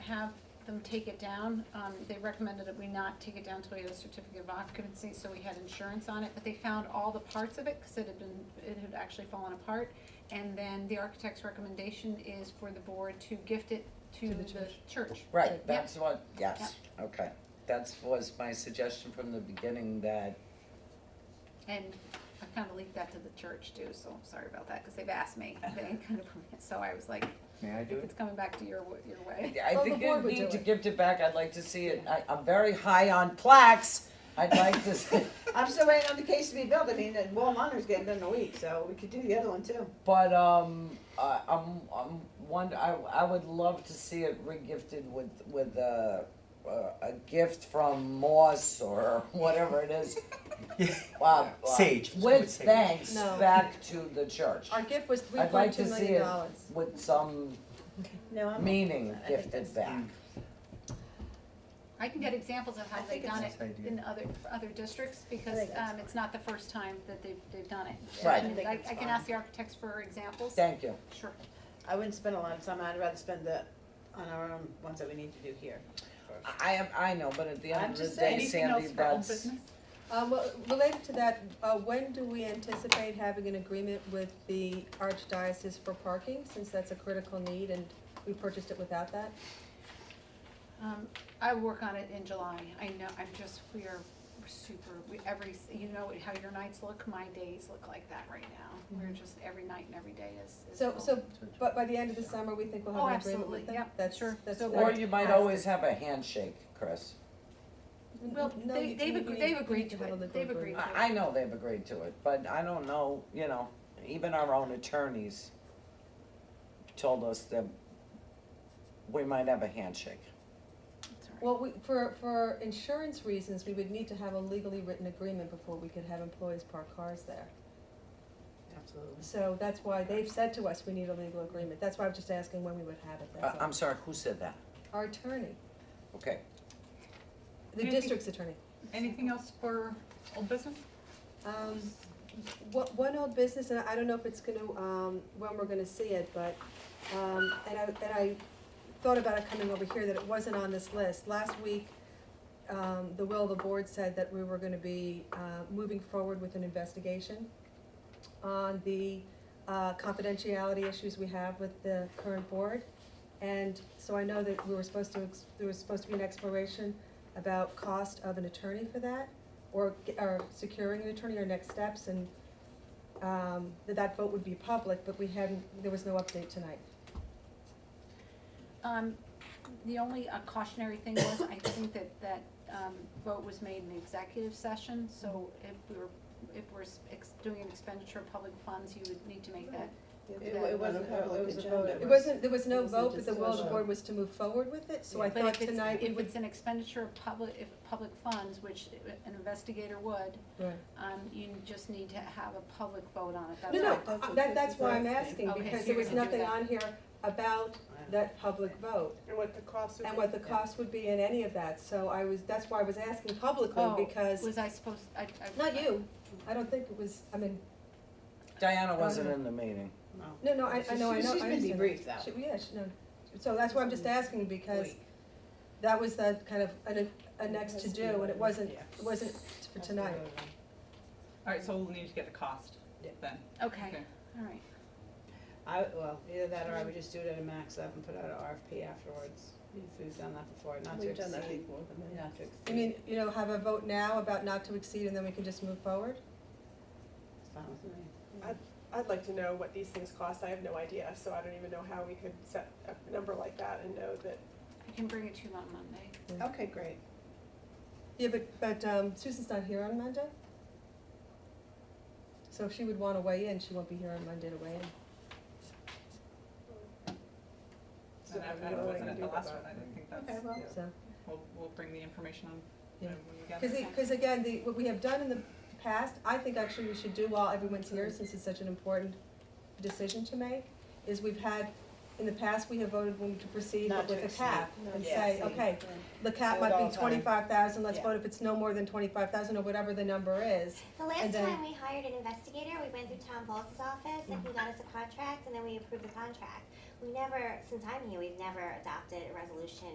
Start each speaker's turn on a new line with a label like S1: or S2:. S1: have them take it down. Um, they recommended that we not take it down till we had a certificate of occupancy, so we had insurance on it, but they found all the parts of it, cause it had been, it had actually fallen apart. And then the architect's recommendation is for the board to gift it to
S2: To the
S1: the church.
S3: Right, that's what, yes, okay. That's was my suggestion from the beginning that,
S1: And I kinda leaked that to the church too, so I'm sorry about that, cause they've asked me, they kind of, so I was like,
S3: may I do
S1: it's coming back to your, w- your way.
S3: I
S2: Well, the
S3: think you
S2: board would
S3: need
S2: do
S3: to
S2: it.
S3: give it back, I'd like to see it, I, I'm very high on plaques, I'd like to, see-
S4: I'm still waiting on the case to be built, I mean, the wall monitor's getting done in a week, so we could do the other one too.
S3: but, um, I, I'm, I'm wonder, I, I would love to see it regifted with, with a, a gift from Moss or whatever it is. Wow, wow.
S5: Sage.
S3: With thanks
S2: No.
S3: back to the church,
S2: Our gift was three
S3: I'd like
S2: point two
S3: to see
S2: million
S3: it
S2: dollars.
S3: with some
S4: No, I'm.
S3: meaning
S4: I think
S3: gifted
S4: that's-
S3: back.
S2: Mm.
S1: I can get examples of how
S4: I
S1: they've
S4: think
S1: done it
S5: it's a nice idea.
S1: in other, other districts, because,
S4: think that's
S1: um, it's not the first time that they've, they've done it.
S3: Right.
S1: I mean, I,
S4: think
S1: I
S4: it's
S1: can ask the architects for examples.
S3: Thank you.
S1: Sure.
S4: I wouldn't spend a lot of time, I'd rather spend the, on our own ones that we need to do here.
S3: I am, I know, but at the
S4: I'm
S3: end of the
S4: just
S3: day,
S4: saying,
S3: Sandy, that's,
S2: Um, well, related to that, uh, when do we anticipate having an agreement with the archdiocese for parking, since that's a critical need and we purchased it without that?
S1: Um, I work on it in July, I know, I'm just, we are super, we, every, s- you know how your nights look, my days look like that right now. We're
S2: Mhm.
S1: just, every night and every day is, is.
S2: So,
S1: full.
S2: so, but by the end of the summer, we think we'll
S1: Oh,
S2: have an agreement with
S1: absolutely,
S2: them?
S1: yep, sure.
S2: That's,
S1: So
S2: that's.
S3: or
S1: Right.
S3: you might always have a handshake, Chris.
S1: Well,
S2: No,
S1: they-
S2: you-
S1: they've
S2: you
S1: agre-
S2: need-
S1: they've
S2: you need
S1: agreed to
S2: to have a
S1: it.
S2: legal
S1: They've
S2: agreement.
S1: agreed.
S3: I, I know they've agreed to it, but I don't know, you know, even our own attorneys told us that we might have a handshake.
S1: It's all right.
S2: Well, we, for, for insurance reasons, we would need to have a legally written agreement before we could have employees park cars there.
S4: Absolutely.
S2: So that's why they've said to us, we need a legal agreement, that's why I'm just asking when we would have it,
S3: Uh,
S2: that's all.
S3: I'm sorry, who said that?
S2: Our attorney,
S3: Okay,
S2: the
S6: Maybe-
S2: district's attorney.
S6: Anything else for old business?
S2: Um, one, one old business, and I don't know if it's gonna, um, when we're gonna see it, but, um, and I, and I thought about it coming over here, that it wasn't on this list. Last week, um, the will of the board said that we were gonna be, uh, moving forward with an investigation on the, uh, confidentiality issues we have with the current board. And so I know that we were supposed to, ex- there was supposed to be an exploration about cost of an attorney for that or, ge- or securing an attorney or next steps and, um, that that vote would be public, but we hadn't, there was no update tonight.
S1: Um, the only uh, cautionary thing was, I think that, that, um, vote was made in the executive session, so if we were, if we're s- ex- doing an expenditure of public funds, you would need to make that.
S4: It it wasn't, it was a vote.
S2: It wasn't, there was
S4: It
S2: no
S4: was a
S2: vote, but the will of the
S4: discussion.
S2: board was to move forward with it, so I
S1: But
S2: thought
S1: if it's-
S2: tonight we
S1: If
S2: would.
S1: it's an expenditure of public, if public funds, which an investigator would,
S2: Right.
S1: um, you just need to have a public vote on it, that's
S2: No, no,
S1: all.
S4: That's what
S2: I- that,
S4: this
S2: that's
S4: is
S2: why I'm
S4: asking.
S2: asking,
S1: Okay,
S2: because
S1: so
S2: there
S1: you're
S2: was
S1: gonna do
S2: nothing
S1: that.
S2: on here about that public vote
S4: And what the cost
S2: and what the cost would be in any of that, so I was, that's why I was asking
S1: Oh,
S2: publicly, because,
S1: Was I supposed, I, I.
S2: not you, I don't think it was, I mean,
S3: Diana wasn't in the meeting.
S2: No, no, I, I know, I
S4: She's-
S2: know, I
S4: she's been
S2: understand that.
S4: debriefed, though.
S2: She- Yeah, she, no, so that's why I'm just asking, because that was the kind of, a, a next to do, and it wasn't,
S4: Yeah.
S2: it wasn't for tonight.
S6: All right, so we'll need to get a cost
S4: Yeah.
S6: then.
S1: Okay, all right.
S4: I, well, either that or I would just do it at a max up and put out an RFP afterwards. We've done that before, not to exceed.
S7: We've done that before,
S4: Not to exceed.
S2: You mean, you know, have a vote now about not to exceed, and then we can just move forward?
S4: It's fine with me.
S7: I'd like to know what these things cost, I have no idea, so I don't even know how we could set a number like that and know that
S1: I can bring it to you on Monday.
S4: Okay, great.
S2: Yeah, but, but, um, Susan's not here on Monday? So if she would wanna weigh in, she won't be here on Monday to weigh in.
S7: So
S6: And I, I
S7: I don't know what
S6: wasn't
S7: to
S6: at
S7: do
S6: the
S7: with
S6: last
S7: that.
S6: one, I don't think
S7: Okay,
S6: that's,
S7: well,
S4: Yeah.
S2: So,
S6: we'll, we'll bring the information on
S2: Yeah.
S6: when we gather.
S2: cause, it- cause again, the, what we have done in the past, I think actually we should do while everyone's here, since it's such an important decision to make, is we've had, in the past, we have voted when to proceed
S4: Not
S2: but with
S4: to
S2: a cap
S4: exceed, not
S2: and
S4: to
S2: say,
S4: exceed.
S2: okay, the cap
S4: Do it all
S2: might
S4: the
S2: be
S4: time.
S2: twenty-five thousand, let's
S4: Yeah.
S2: vote if it's no more than twenty-five thousand or whatever the number is.
S8: The
S2: And
S8: last
S2: then-
S8: time we hired an investigator, we went through Tom Ball's office and
S2: Mm-hmm.
S8: he got us a contract and then we approved the contract. We never, since I'm here, we've never adopted a resolution